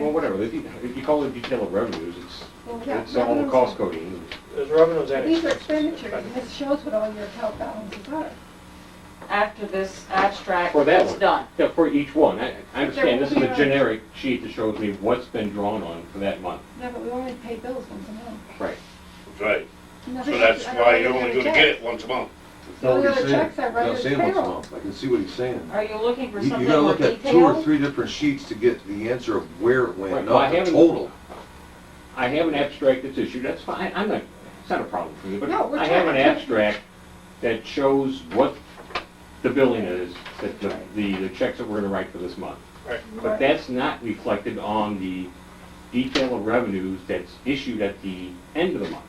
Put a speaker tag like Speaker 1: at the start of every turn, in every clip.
Speaker 1: Well, whatever, if you- if you call it detail of revenues, it's,
Speaker 2: Well, yeah,
Speaker 1: it's all the
Speaker 2: revenues-
Speaker 1: cost coding.
Speaker 3: There's revenues and
Speaker 2: These are
Speaker 3: expenses.
Speaker 2: expenditures, and this shows what all your account balances are.
Speaker 4: after this abstract
Speaker 1: For that
Speaker 4: is
Speaker 1: one.
Speaker 4: done.
Speaker 1: Yeah, for each one, I, I understand, this is
Speaker 2: There will
Speaker 1: a
Speaker 2: be a-
Speaker 1: generic sheet that shows me what's been drawn on for that month.
Speaker 2: No, but we only pay bills once a month.
Speaker 1: Right.
Speaker 5: Right,
Speaker 2: No,
Speaker 5: so
Speaker 2: this
Speaker 5: that's
Speaker 2: is- I don't
Speaker 5: why you're
Speaker 2: know
Speaker 5: only
Speaker 2: the
Speaker 5: gonna
Speaker 2: check.
Speaker 5: get it once a month.
Speaker 2: All the
Speaker 6: No, what
Speaker 2: other
Speaker 6: he's saying.
Speaker 2: checks I
Speaker 6: Not
Speaker 2: write is
Speaker 6: saying what's
Speaker 2: payroll.
Speaker 6: wrong. I can see what he's saying.
Speaker 4: Are you looking for
Speaker 6: You you
Speaker 4: something
Speaker 6: gotta
Speaker 4: more
Speaker 6: look at two or
Speaker 4: detailed?
Speaker 6: three different sheets to get the answer of where it
Speaker 1: Right,
Speaker 6: went,
Speaker 1: well, I
Speaker 6: not the
Speaker 1: haven't-
Speaker 6: total.
Speaker 1: I have an abstract that's issued, that's fine, I'm not, it's not a problem for me, but
Speaker 2: No, we're
Speaker 1: I have
Speaker 2: trying
Speaker 1: an
Speaker 2: to-
Speaker 1: abstract that shows what the billing is, that the, the the checks that we're gonna write for this month.
Speaker 3: Right.
Speaker 1: But that's not reflected on the detail of revenues that's issued at the end of the month.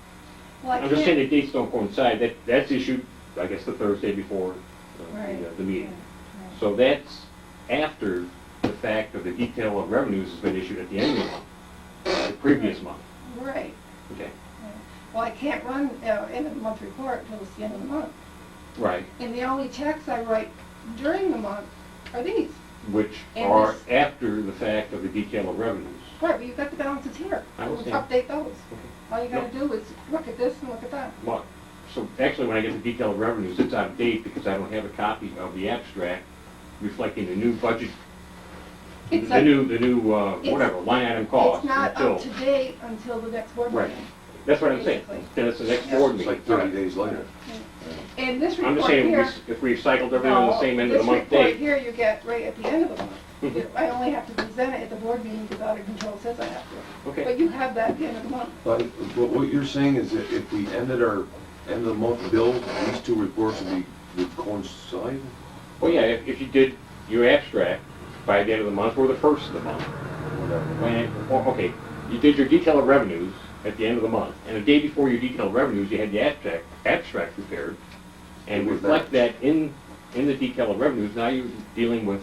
Speaker 2: Well, I
Speaker 1: I'm just saying
Speaker 2: can't-
Speaker 1: the dates don't coincide, that, that's issued, I guess, the Thursday before uh,
Speaker 2: Right.
Speaker 1: the, uh, the meeting. So that's after the fact of the detail of revenues has been issued at the end of the month, the previous month,
Speaker 2: Right.
Speaker 1: okay?
Speaker 2: Well, I can't run, uh, end of the month report until it's the end of the month.
Speaker 1: Right.
Speaker 2: And the only checks I write during the month are these.
Speaker 1: Which
Speaker 2: And
Speaker 1: are
Speaker 2: this-
Speaker 1: after the fact of the detail of revenues.
Speaker 2: Right, but you've got the balances here.
Speaker 1: I
Speaker 2: We'll
Speaker 1: understand.
Speaker 2: Update those. All you gotta do is look at this and look at that.
Speaker 1: Well, so actually, when I get the detail of revenues, it's out of date because I don't have a copy of the abstract reflecting the new budget,
Speaker 2: It's
Speaker 1: the
Speaker 2: a-
Speaker 1: new, the new, uh,
Speaker 2: It's-
Speaker 1: whatever, line item cost.
Speaker 2: It's not
Speaker 1: until-
Speaker 2: up to date until the next board
Speaker 1: Right.
Speaker 2: meeting.
Speaker 1: That's what I'm saying,
Speaker 2: basically.
Speaker 1: then it's the next
Speaker 2: Yeah.
Speaker 1: board
Speaker 6: It's
Speaker 1: meeting.
Speaker 6: like thirty days later.
Speaker 2: And this
Speaker 1: I'm just
Speaker 2: report
Speaker 1: saying,
Speaker 2: here. oh,
Speaker 1: if we if we recycled everything on the
Speaker 4: No,
Speaker 1: same end of the month
Speaker 2: This report
Speaker 1: date,
Speaker 2: here you get right at the end of the month.
Speaker 1: Mhm.
Speaker 2: I only have to present it at the board meeting because audit control says I have to.
Speaker 1: okay,
Speaker 2: But you have that at the end of the month.
Speaker 6: But what what you're saying is that if we ended our end of the month bill, these two reports would be, would coincide?
Speaker 1: well, yeah, if, if you did your abstract by the end of the month or the first of the month,
Speaker 6: Whatever.
Speaker 1: when, or, okay, you did your detail of revenues at the end of the month, and the day before your detail of revenues, you had the abstract, abstract prepared, and
Speaker 6: With
Speaker 1: reflect that in, in the detail of revenues, now you're dealing with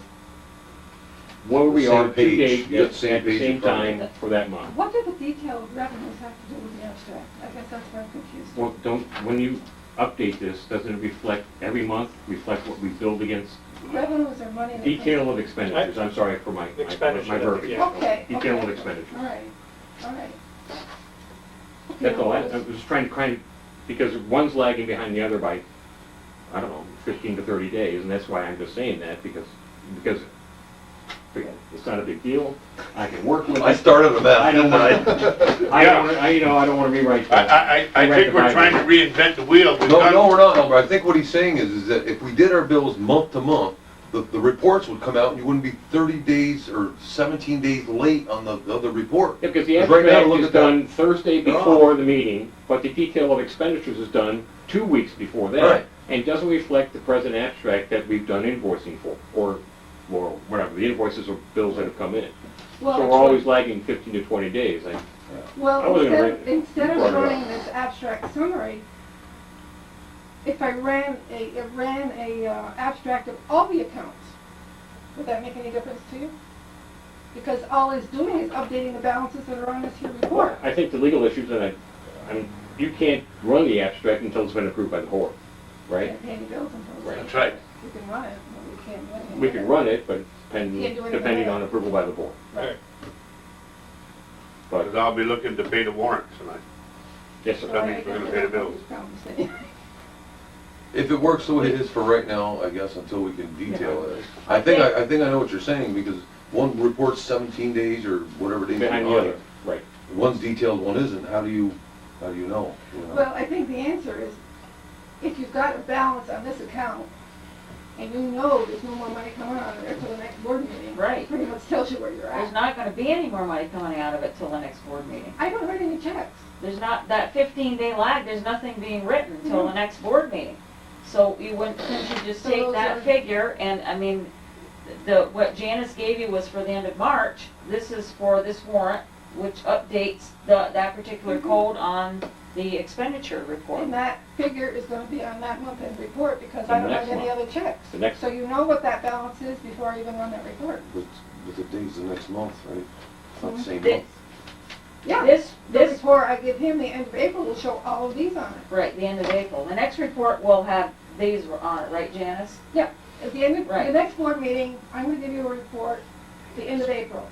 Speaker 1: where we
Speaker 6: Same
Speaker 1: are two
Speaker 6: page,
Speaker 1: days
Speaker 6: yeah,
Speaker 1: at
Speaker 6: same
Speaker 1: at the
Speaker 6: page
Speaker 1: same
Speaker 6: in front of
Speaker 1: time for that month.
Speaker 2: What do the detailed revenues have to do with the abstract? I guess that's where I'm confused.
Speaker 1: Well, don't, when you update this, doesn't it reflect, every month, reflect what we billed against
Speaker 2: Revenues are money that comes.
Speaker 1: Detail of expenditures, I'm sorry for my, my-
Speaker 3: Expenditure,
Speaker 1: my
Speaker 3: I think,
Speaker 1: verbiage.
Speaker 3: yeah.
Speaker 2: Okay,
Speaker 1: Detail of
Speaker 2: okay.
Speaker 1: expenditures.
Speaker 2: All right, all right. Okay,
Speaker 1: That's all, I, I
Speaker 2: well,
Speaker 1: was trying to kind of, because one's lagging behind the other by, I don't know, fifteen to thirty days, and that's why I'm just saying that, because, because, forget it, it's not a big deal, I can work with it.
Speaker 6: I started on that.
Speaker 1: I don't wanna, I don't wanna, I, you know, I don't wanna rewrite
Speaker 5: I,
Speaker 1: that.
Speaker 5: I, I I think we're trying to reinvent the wheel. We've
Speaker 6: No,
Speaker 5: done-
Speaker 6: no, we're not, Elmer. I think what he's saying is, is that if we did our bills month to month, the, the reports would come out and you wouldn't be thirty days or seventeen days late on the, the, the report.
Speaker 1: Yeah, because the
Speaker 6: Because right now,
Speaker 1: abstract
Speaker 6: look
Speaker 1: is
Speaker 6: at that.
Speaker 1: done Thursday
Speaker 6: No.
Speaker 1: before the meeting, but the detail of expenditures is done two weeks before
Speaker 6: Right.
Speaker 1: that. And doesn't reflect the present abstract that we've done invoicing for, or, or whatever, the invoices or bills that have come in.
Speaker 2: well,
Speaker 1: So we're always lagging fifteen to twenty days. I- I
Speaker 2: Well,
Speaker 1: wasn't gonna
Speaker 2: instead,
Speaker 1: read it.
Speaker 2: instead
Speaker 1: You
Speaker 2: of
Speaker 1: brought it up.
Speaker 2: running this abstract summary, if I ran a, I ran a uh, abstract of all the accounts, would that make any difference to you? Because all it's doing is updating the balances that are on this here report.
Speaker 1: I think the legal issues, and I, I mean, you can't run the abstract until it's been approved by the board,
Speaker 2: You
Speaker 1: right?
Speaker 2: can't pay any bills until it's-
Speaker 1: Right.
Speaker 5: That's right.
Speaker 2: You can run it, but we can't run it.
Speaker 1: We can run it, but it's
Speaker 2: Can't
Speaker 1: pending,
Speaker 2: do anything
Speaker 1: depending
Speaker 2: with it.
Speaker 1: on approval by the board.
Speaker 2: Right.
Speaker 1: But,
Speaker 5: Because I'll be looking to pay the warrant tonight.
Speaker 1: yes, sir.
Speaker 2: So
Speaker 5: That
Speaker 2: I
Speaker 5: means we're
Speaker 2: guess
Speaker 5: gonna pay the
Speaker 2: I don't
Speaker 5: bills.
Speaker 2: have this conversation.
Speaker 6: If it works the way it is for right now, I guess, until we can detail it. I think, I, I think I know what you're saying, because one report's seventeen days or whatever days.
Speaker 1: Behind the
Speaker 6: behind.
Speaker 1: other, right.
Speaker 6: One's detailed, one isn't. How do you, how do you know? you know?
Speaker 2: Well, I think the answer is, if you've got a balance on this account, and you know there's no more money coming out of there till the next board meeting.
Speaker 4: Right.
Speaker 2: Pretty much tells you where you're
Speaker 4: There's
Speaker 2: at.
Speaker 4: not gonna be any more money coming out of it till the next board meeting.
Speaker 2: I don't write any checks.
Speaker 4: There's not, that fifteen day lag, there's nothing being written till the next board meeting. So you wouldn't, couldn't you just
Speaker 2: Mhm. So
Speaker 4: take
Speaker 2: those are-
Speaker 4: that figure and, I mean, the, what Janice gave you was for the end of March. This is for this warrant, which updates the, that particular
Speaker 2: Mhm.
Speaker 4: code on the expenditure report.
Speaker 2: And that figure is gonna be on that month end report, because
Speaker 1: The
Speaker 2: I don't
Speaker 1: next
Speaker 2: write any
Speaker 1: one.
Speaker 2: other checks.
Speaker 1: The next-
Speaker 2: So you know what that balance is before I even run that report.
Speaker 6: But, but the date's the next month, right? Not the same
Speaker 4: This-
Speaker 6: month.
Speaker 2: Yeah,
Speaker 4: This,
Speaker 2: the
Speaker 4: this,
Speaker 2: report I give him the end of April will show all of these on it.
Speaker 4: right, the end of April. The next report will have, these were on it, right Janice?
Speaker 2: At the end of, the
Speaker 4: Right.
Speaker 2: next board meeting, I'm gonna give you a report, the end of April.